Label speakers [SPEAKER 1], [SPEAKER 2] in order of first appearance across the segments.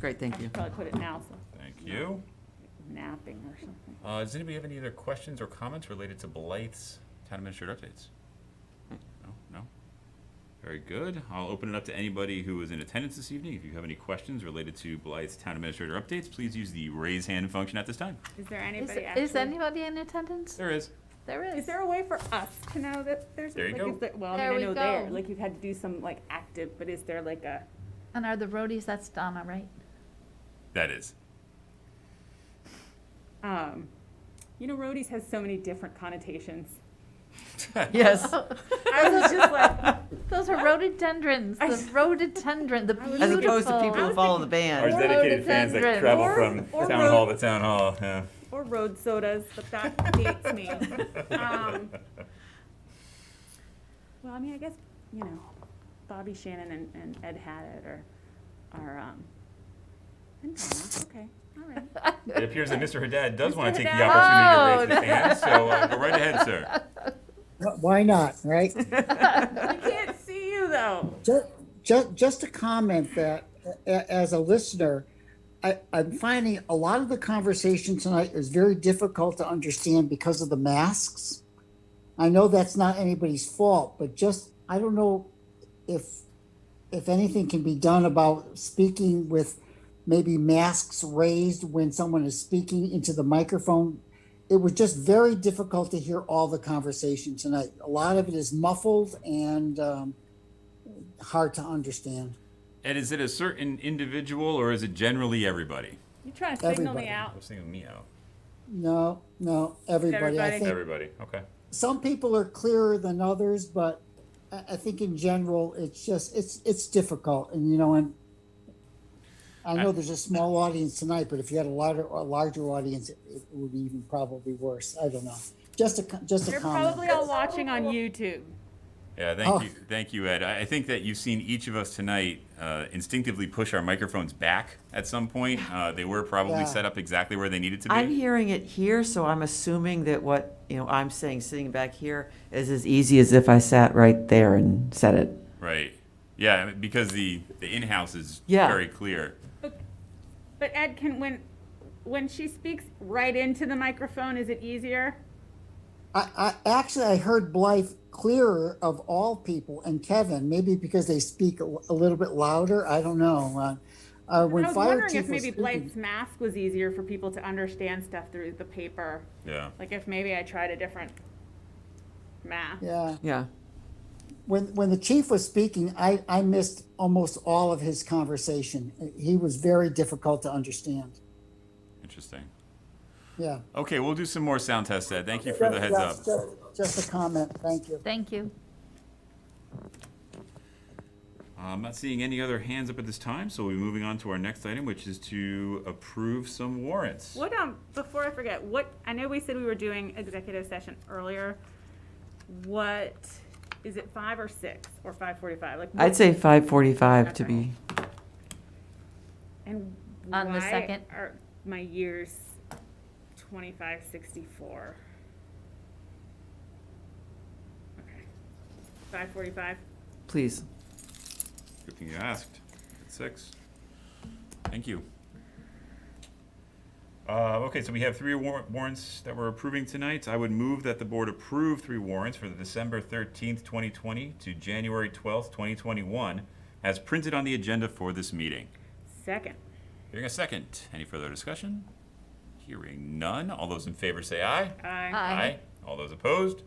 [SPEAKER 1] Great, thank you.
[SPEAKER 2] Probably put it now, so
[SPEAKER 3] Thank you.
[SPEAKER 2] napping or something.
[SPEAKER 3] Uh, does anybody have any other questions or comments related to Blythe's town administrator updates? Hmm. No, no? Very good. I'll open it up to anybody who is in attendance this evening. If you have any questions related to Blythe's town administrator updates, please use the raise hand function at this time.
[SPEAKER 2] Is there
[SPEAKER 4] Is,
[SPEAKER 2] anybody actually?
[SPEAKER 4] is anybody in attendance?
[SPEAKER 3] There is.
[SPEAKER 4] There
[SPEAKER 2] Is
[SPEAKER 4] is.
[SPEAKER 2] there a way for us to know that there's?
[SPEAKER 3] There you
[SPEAKER 2] like,
[SPEAKER 3] go.
[SPEAKER 2] is there- Well, I
[SPEAKER 4] There
[SPEAKER 2] mean,
[SPEAKER 4] we
[SPEAKER 2] I know there,
[SPEAKER 4] go.
[SPEAKER 2] like you've had to do some like active, but is there like a,
[SPEAKER 4] And are the roadies, that's Donna, right?
[SPEAKER 3] That is.
[SPEAKER 2] um, you know, roadies has so many different connotations.
[SPEAKER 1] Yes,
[SPEAKER 2] Oh. I was just like,
[SPEAKER 4] Those are rhododendrons, the rhododendron, the beautiful.
[SPEAKER 1] as opposed to people who follow the
[SPEAKER 3] Ours
[SPEAKER 1] band.
[SPEAKER 4] Or
[SPEAKER 3] dedicated fans that
[SPEAKER 4] rhododendron.
[SPEAKER 3] travel
[SPEAKER 2] Or-
[SPEAKER 3] from
[SPEAKER 2] or
[SPEAKER 3] town hall
[SPEAKER 2] rhod-
[SPEAKER 3] to town hall, yeah.
[SPEAKER 2] or road sodas, but that dates me. Um, Well, I mean, I guess, you know, Bobby Shannon and, and Ed had it or, or, um, and Donna, okay, all right.
[SPEAKER 3] It appears that Mr. Haddad does
[SPEAKER 2] Mr.
[SPEAKER 3] want to take the
[SPEAKER 2] Haddad.
[SPEAKER 3] opportunity to raise
[SPEAKER 4] Oh,
[SPEAKER 3] his hand, so uh, go right ahead, sir.
[SPEAKER 5] Wh- Why not, right?
[SPEAKER 2] I can't see you though.
[SPEAKER 5] just, just, just a comment that a- as a listener, I, I'm finding a lot of the conversation tonight is very difficult to understand because of the masks. I know that's not anybody's fault, but just I don't know if if anything can be done about speaking with maybe masks raised when someone is speaking into the microphone. It was just very difficult to hear all the conversation tonight. A lot of it is muffled and um, hard to understand.
[SPEAKER 3] And is it a certain individual or is it generally everybody?
[SPEAKER 2] You're trying to signal
[SPEAKER 5] Everybody.
[SPEAKER 2] me out.
[SPEAKER 3] I was thinking meow.
[SPEAKER 5] No, no, everybody. I
[SPEAKER 2] Everybody.
[SPEAKER 5] think
[SPEAKER 3] Everybody, okay.
[SPEAKER 5] some people are clearer than others, but I, I think in general, it's just it's it's difficult, and you know, and I know there's a small audience tonight, but if you had a larger a larger audience, it, it would be even probably worse. I don't know. Just a co- just a
[SPEAKER 2] You're
[SPEAKER 5] comment.
[SPEAKER 2] probably all watching on YouTube.
[SPEAKER 3] Yeah, thank
[SPEAKER 5] Oh.
[SPEAKER 3] you, thank you, Ed. I I think that you've seen each of us tonight uh, instinctively push our microphones back at some point. Uh, they were probably
[SPEAKER 5] Yeah.
[SPEAKER 3] set up exactly where they needed to be.
[SPEAKER 1] I'm hearing it here, so I'm assuming that what, you know, I'm saying, sitting back here, is as easy as if I sat right there and said it.
[SPEAKER 3] Right. Yeah, I mean, because the the in house is
[SPEAKER 1] Yeah.
[SPEAKER 3] very clear.
[SPEAKER 2] But Ed, can when when she speaks right into the microphone, is it easier?
[SPEAKER 5] I, I actually I heard Blythe clearer of all people, and Kevin maybe because they speak a, a little bit louder. I don't know. Uh, uh, when
[SPEAKER 2] I was
[SPEAKER 5] fire
[SPEAKER 2] wondering
[SPEAKER 5] chief
[SPEAKER 2] if
[SPEAKER 5] was
[SPEAKER 2] maybe
[SPEAKER 5] speaking-
[SPEAKER 2] Blythe's mask was easier for people to understand stuff through the paper.
[SPEAKER 3] Yeah.
[SPEAKER 2] Like if maybe I tried a different mask.
[SPEAKER 5] yeah.
[SPEAKER 1] Yeah.
[SPEAKER 5] when when the chief was speaking, I I missed almost all of his conversation. He was very difficult to understand.
[SPEAKER 3] Interesting.
[SPEAKER 5] Yeah.
[SPEAKER 3] Okay, we'll do some more sound tests, Ed. Thank you for the heads up.
[SPEAKER 5] Just- Just just a comment. Thank you.
[SPEAKER 4] Thank you.
[SPEAKER 3] I'm Um, not seeing any other hands up at this time, so we'll be moving on to our next item, which is to approve some warrants.
[SPEAKER 2] What um before I forget, what I know we said we were doing executive session earlier. What is it five or six or five forty five? Like
[SPEAKER 1] I'd
[SPEAKER 2] what-
[SPEAKER 1] say 5:45 to be,
[SPEAKER 2] And
[SPEAKER 4] On the
[SPEAKER 2] why
[SPEAKER 4] second?
[SPEAKER 2] Are my years twenty-five sixty-four? Okay, five forty-five.
[SPEAKER 1] please.
[SPEAKER 3] Good thing you asked. At six. Thank you. Uh, okay, so we have three war- warrants that we're approving tonight. I would move that the board approve three warrants for the December thirteenth, twenty twenty to January twelfth, twenty twenty-one, as printed on the agenda for this meeting.
[SPEAKER 2] Second.
[SPEAKER 3] Hearing a second. Any further discussion? Hearing none. All those in favor say aye.
[SPEAKER 2] Aye.
[SPEAKER 4] Aye.
[SPEAKER 3] All those opposed?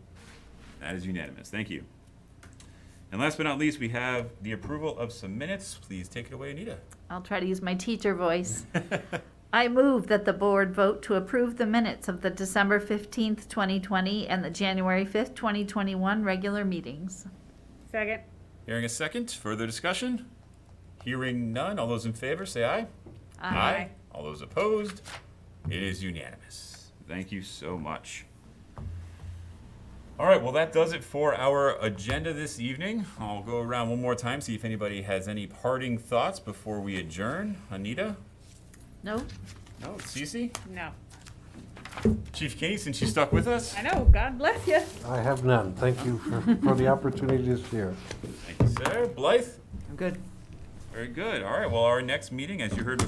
[SPEAKER 3] That is unanimous. Thank you. And last but not least, we have the approval of some minutes. Please take it away, Anita.
[SPEAKER 4] I'll try to use my teacher voice. I move that the board vote to approve the minutes of the December 15th, 2020 and the January 5th, 2021 regular meetings.
[SPEAKER 2] Second.
[SPEAKER 3] Hearing a second. Further discussion? Hearing none. All those in favor say aye. All those opposed? It is unanimous. Thank you so much. All right, well, that does it for our agenda this evening. I'll go around one more time, see if anybody has any parting thoughts before we adjourn. Anita?
[SPEAKER 4] No?
[SPEAKER 3] No, Cece?
[SPEAKER 2] No.
[SPEAKER 3] Chief Kinney, since you stuck with us?
[SPEAKER 2] I know, God bless you.
[SPEAKER 6] I have none. Thank you for, for the opportunity this year.
[SPEAKER 3] Thank you, sir. Blythe?
[SPEAKER 1] I'm good.
[SPEAKER 3] Very good. All right, well, our next meeting, as you heard